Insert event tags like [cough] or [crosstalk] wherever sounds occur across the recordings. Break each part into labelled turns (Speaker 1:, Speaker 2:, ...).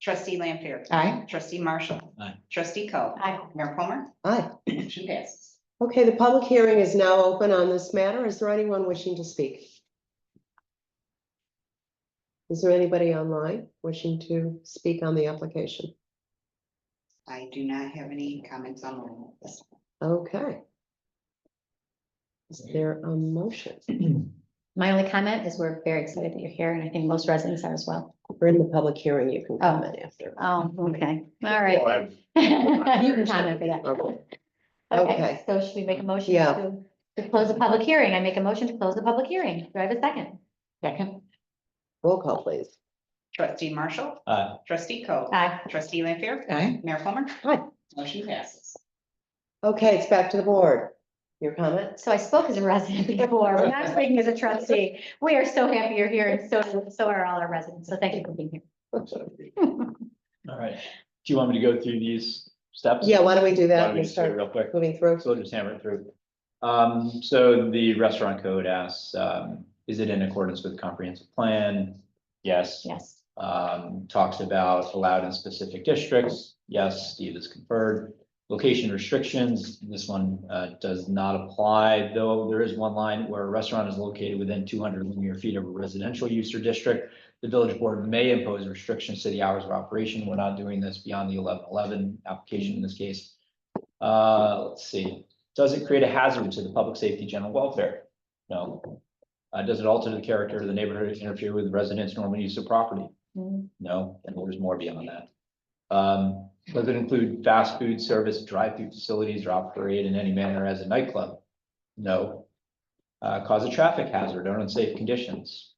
Speaker 1: Trustee Lampier.
Speaker 2: Aye.
Speaker 1: Trustee Marshall.
Speaker 3: Aye.
Speaker 1: Trustee Coe.
Speaker 4: Aye.
Speaker 1: Mayor Palmer.
Speaker 2: Aye.
Speaker 1: Motion passes.
Speaker 2: Okay, the public hearing is now open on this matter. Is there anyone wishing to speak? Is there anybody online wishing to speak on the application?
Speaker 1: I do not have any comments on all of this.
Speaker 2: Okay. Is there a motion?
Speaker 4: My only comment is we're very excited that you're here and I think most residents are as well.
Speaker 2: We're in the public hearing. You can comment after.
Speaker 4: Oh, okay. All right.
Speaker 5: I'm-
Speaker 4: [laughs] You can comment for that.
Speaker 2: Okay. Okay.
Speaker 4: Okay, so should we make a motion
Speaker 2: Yeah.
Speaker 4: to, to close the public hearing? I make a motion to close the public hearing. Do I have a second? Second.
Speaker 2: Roll call, please.
Speaker 1: Trustee Marshall.
Speaker 3: Aye.
Speaker 1: Trustee Coe.
Speaker 4: Aye.
Speaker 1: Trustee Lampier.
Speaker 2: Aye.
Speaker 1: Mayor Palmer.
Speaker 2: Aye.
Speaker 1: Motion passes.
Speaker 2: Okay, it's back to the board. Your comment?
Speaker 4: So I spoke as a resident [laughs] before, but now I'm speaking as a trustee. We are so happy you're here and so, so are all our residents. So thank you for being here.
Speaker 3: All right. Do you want me to go through these steps?
Speaker 2: Yeah, why don't we do
Speaker 3: Why
Speaker 2: that?
Speaker 3: don't we
Speaker 2: We'll
Speaker 3: just do it
Speaker 2: start
Speaker 3: Real quick.
Speaker 2: moving through.
Speaker 3: So we'll just hammer it through. Um, so the restaurant code asks, um, is it in accordance with comprehensive plan? Yes.
Speaker 4: Yes.
Speaker 3: Um, talks about allowed in specific districts. Yes, Steve is conferred. Location restrictions, this one, uh, does not apply, though there is one line where a restaurant is located within two hundred linear feet of a residential use or district. The village board may impose restrictions to the hours of operation. We're not doing this beyond the eleven eleven application in this case. Uh, let's see, does it create a hazard to the public safety, general welfare? No. Uh, does it alter the character of the neighborhood, interfere with residents' normal use of property?
Speaker 4: Mm,
Speaker 3: No, and there's more beyond that. Um, does it include fast food service, drive-through facilities, or operate in any manner as a nightclub? No. Uh, cause a traffic hazard or unsafe conditions?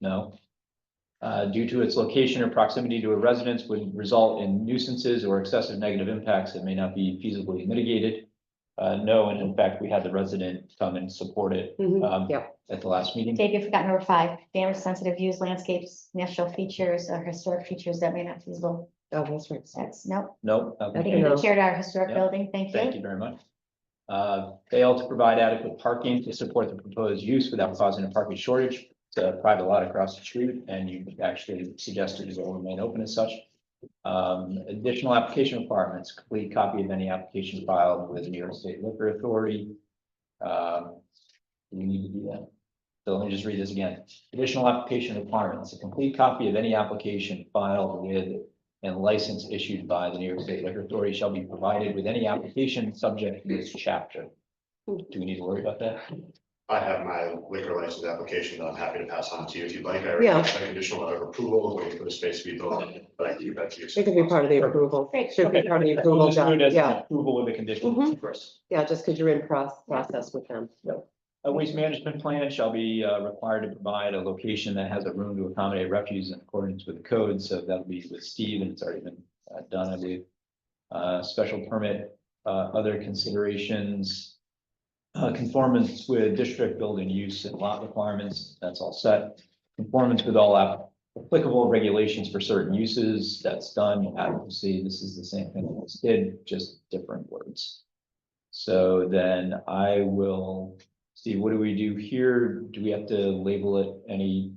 Speaker 3: No. Uh, due to its location or proximity to a residence would result in nuisances or excessive negative impacts that may not be feasibly mitigated? Uh, no, and in fact, we had the resident come and support it,
Speaker 2: Mhm.
Speaker 3: um,
Speaker 2: yeah.
Speaker 3: at the last meeting.
Speaker 4: Dave, you forgot number five, damage sensitive views, landscapes, natural features, or historic features that may not be feasible.
Speaker 2: Oh, that's right.
Speaker 4: That's, nope.
Speaker 3: No. okay.
Speaker 4: I think we
Speaker 2: No.
Speaker 4: shared our historic
Speaker 3: Yeah.
Speaker 4: building. Thank you.
Speaker 3: Thank you very much. Uh, fail to provide adequate parking to support the proposed use without causing a parking shortage. It's a private lot across the street and you actually suggested it will remain open as such. Um, additional application requirements, complete copy of any application filed with New York State Liquor Authority. Um, do we need to do that. So let me just read this again. Additional application requirements, a complete copy of any application filed with and license issued by the New York State Liquor Authority shall be provided with any application subject to this chapter. Do we need to worry about that?
Speaker 5: I have my liquor license application that I'm happy to pass on to you if you'd like. I
Speaker 2: Yeah.
Speaker 5: already have a conditional letter of approval, waiting for the space to be built, but I keep that to
Speaker 2: It could be
Speaker 5: yourself.
Speaker 2: part of the approval.
Speaker 4: Great.
Speaker 2: Should be part of the approval, John. Yeah,
Speaker 3: Approval with the condition.
Speaker 2: Mhm.
Speaker 3: first.
Speaker 2: yeah, just because you're in proc- process with them.
Speaker 3: A waste management plan shall be uh, required to provide a location that has a room to accommodate refuse in accordance with the code, so that'll be with Steve, and it's already been uh, done, I believe. Uh, special permit, uh, other considerations. Uh, conformance with district building use and lot requirements, that's all set. Conformance with all app- applicable regulations for certain uses, that's done, advocacy, this is the same thing we just did, just different words. So then I will, Steve, what do we do here? Do we have to label it any?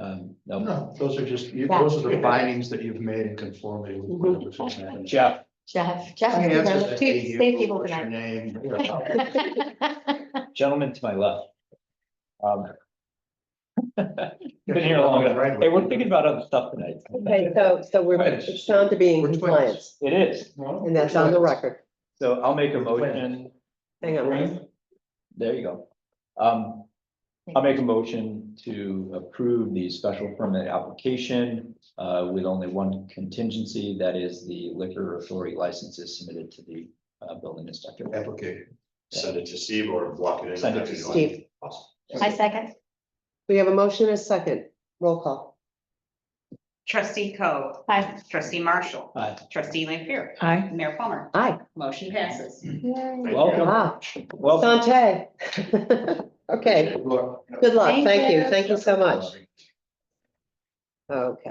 Speaker 3: Um, no,
Speaker 6: No, those are just, you-
Speaker 4: Yeah.
Speaker 6: those are the findings that you've made in conformity with
Speaker 2: Mm-hmm.
Speaker 6: whatever. format.
Speaker 3: Jeff,
Speaker 4: Jeff, Jeff.
Speaker 6: I
Speaker 4: you're
Speaker 6: answered
Speaker 4: one of the
Speaker 6: that
Speaker 4: two
Speaker 6: to you.
Speaker 4: safe people
Speaker 6: What's your
Speaker 4: tonight.
Speaker 2: [laughs]
Speaker 6: name?
Speaker 4: [laughs]
Speaker 3: gentleman to my left. Um. Been here long enough. Hey, we're thinking about other stuff tonight.
Speaker 2: Okay, so, so we're,
Speaker 3: Right.
Speaker 2: it's sound to being
Speaker 6: We're twins.
Speaker 2: compliance,
Speaker 3: It is.
Speaker 6: No?
Speaker 2: and that's on the record.
Speaker 3: So I'll make a motion.
Speaker 2: Hang on, Ryan.
Speaker 3: There you go. Um, I'll make a motion to approve the special permit application uh, with only one contingency, that is the liquor authority license is submitted to the uh, building inspector.
Speaker 6: Application.
Speaker 5: Send it to Steve or block it in.
Speaker 3: Send it to
Speaker 5: if you'd like.
Speaker 2: Steve.
Speaker 5: Awesome.
Speaker 4: I second.
Speaker 2: We have a motion and a second. Roll call.
Speaker 1: Trustee Coe.
Speaker 4: Aye.
Speaker 1: Trustee Marshall.
Speaker 3: Aye.
Speaker 1: Trustee Lampier.
Speaker 2: Aye.
Speaker 1: Mayor Palmer.
Speaker 2: Aye.
Speaker 1: Motion passes.
Speaker 5: Thank you.
Speaker 3: Welcome,
Speaker 2: Wow,
Speaker 3: welcome.
Speaker 2: Ah, Sante. [laughs] Okay,
Speaker 6: Look,
Speaker 2: good luck.
Speaker 4: Thank
Speaker 2: Thank you.
Speaker 4: you.
Speaker 2: Thank you so much. Okay.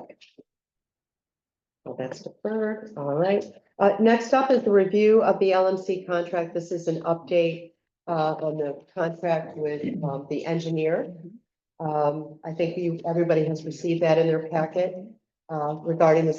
Speaker 2: Well, that's deferred, all right. Uh, next up is the review of the LMC contract. This is an update uh, on the contract with um, the engineer. Um, I think you, everybody has received that in their packet uh, regarding the